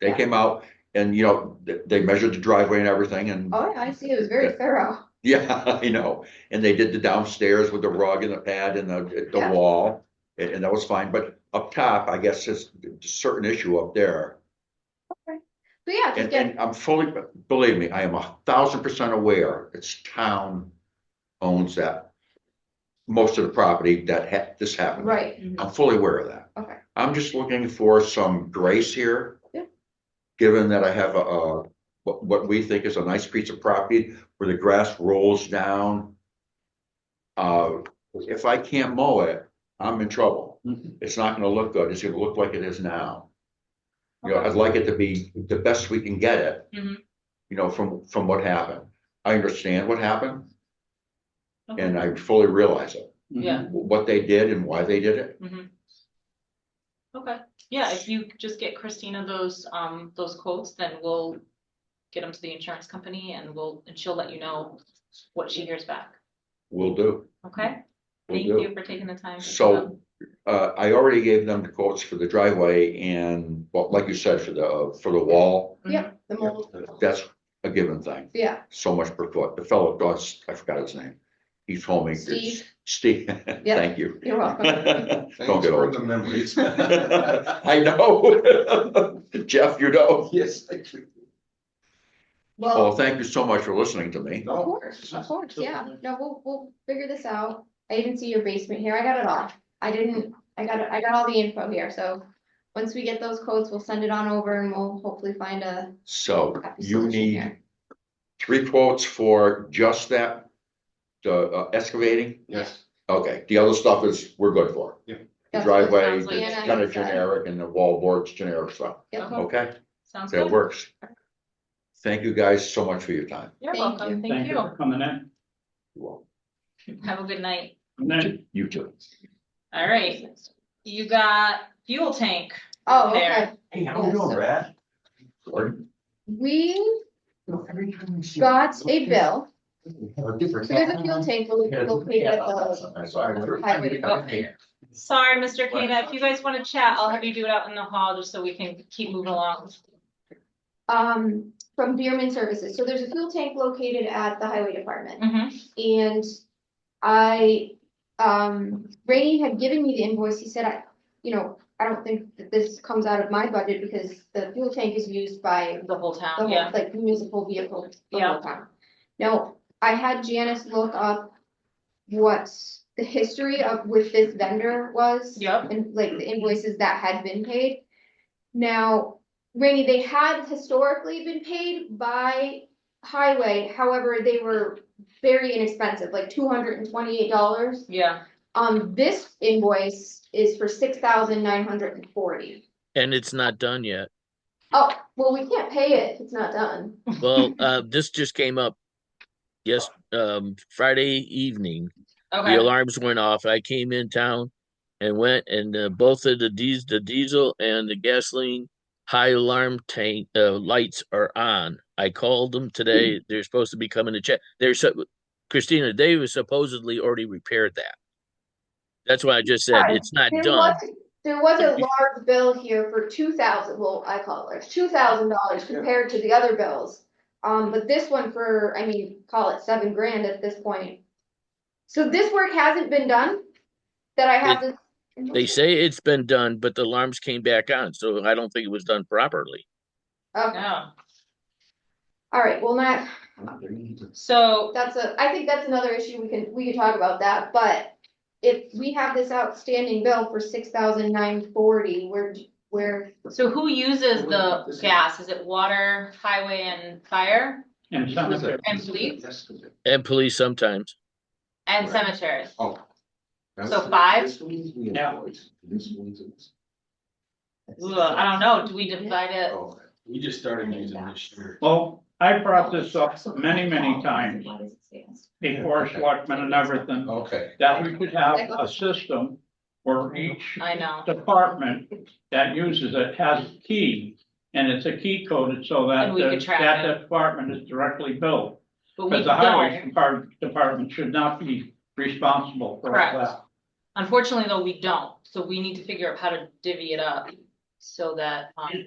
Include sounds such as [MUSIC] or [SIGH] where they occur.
They Yeah. came out and, you know, they, they measured the driveway and everything and, Oh, yeah, I see, it was very thorough. [LAUGHS] yeah, I know. And they did the downstairs with the rug and the pad and the, the Yeah. wall. And, and that was fine, but up top, I guess it's a certain issue up there. But yeah, just And, get, and I'm fully, believe me, I am a thousand percent aware, it's town owns that. Most of the property that ha- this happened. right, I'm fully aware of that. Okay. I'm just looking for some grace here. Yeah. Given that I have a, uh, what, what we think is a nice piece of property where the grass rolls down. Uh, if I can't mow it, I'm in trouble. Mm-hmm. Mhm. It's not gonna look good. It's gonna look like it is now. You know, Okay. I'd like it to be the best we can get it. Mhm. You know, from, from what happened. I understand what happened Okay. and I fully realize it, um, Yeah. Mm-hmm. what they did and why they did it. Okay, yeah, if you just get Christina those, um, those quotes, then we'll get them to the insurance company and we'll, and she'll let you know what she hears back, Will do. okay? Will Thank do. you for taking the time. So, uh, I already gave them the quotes for the driveway and, well, like you said, for the, for the wall. yeah, the mold, That's a given thing, yeah, so much per foot. The fellow does, I forgot his name. He told me. it's- Steve. Steve, [LAUGHS] thank you. you're [LAUGHS] welcome. Don't Thanks get for old. the [LAUGHS] memories. I know. [LAUGHS] Jeff, you know. [LAUGHS] Yes, I do. Well, Oh. Well, thank you so much for listening to me. of course, of course, yeah, no, we'll, we'll figure this out. I even see your basement here, I got it all. I didn't, I got, it. I got all the info here, so once we get those quotes, we'll send it on over and we'll hopefully find a So happy you solution need here. three quotes for just that, the uh, excavating? Yes, Okay, the other stuff is, we're good for. That's what it driveway, sounds like. it's Yeah, kind you of said. generic and the wall board's generic stuff, Yep. Okay. okay? Sounds That good. works. Thank you guys so much for your time. You're Thank you. welcome, thank you. for coming in. Have a good night. And then- You too. All right, you got fuel tank. Oh, okay, There. Hey, how we doing, Brad? we got a bill, so there's a fuel tank lo- located at the, Sorry, Mr. Kada, if you guys wanna chat, I'll have you do it out in the hall just so we can keep moving along. um, from Beerman Services, so there's a fuel tank located at the highway department. Mhm. And I, um, Ray had given me the invoice, he said, I, you know, I don't think that this comes out of my budget because the fuel tank is used by the whole the town, whole, yeah, like municipal vehicles. the Yeah. whole time. Now, I had Janice look up what the history of with this vendor was yep, and like the invoices that had been paid. Now, Rainy, they had historically been paid by highway, however, they were very inexpensive, like two hundred and twenty-eight dollars. yeah, Um, this invoice is for six thousand nine hundred and forty. And it's not done yet. Oh, well, we can't pay it if it's not done. Well, uh, this just came up. Yes, um, Friday evening, the okay, alarms went off. I came in town and went and uh, both of the dies, the diesel and the gasoline high alarm tank, uh, lights are on. I called them today. They're supposed to be coming to check. They're so, Christina, they were supposedly already repaired that. That's why I just said Right. it's not There done. was, there was a large bill here for two thousand, well, I call it large, two thousand dollars compared to the other bills. Um, but this one for, I mean, call it seven grand at this point. So this work hasn't been done? That I have to. They say it's been done, but the alarms came back on, so I don't think it was done properly. Okay, yeah. all right, well, not, So, that's a, I think that's another issue, we can, we can talk about that, but. If we have this outstanding bill for six thousand nine forty, we're, we're, So who uses the gas? Is it water, highway and fire And some of it, And police? And police sometimes. and Right. cemetery? Oh. So five? This one's the invoice, this one's. it's- Ugh, I don't know. Do we divide it? Oh, We just started using this year. well, I brought this up many, many times before selectmen and everything, Okay. that we could have a system where each I know. department that uses it has a key, and it's a key coded so that And we could the- track that department is directly billed. But we Because the highway don't. depart- department should not be responsible for all Correct. that. Unfortunately, though, we don't. So we need to figure out how to divvy it up so that, um.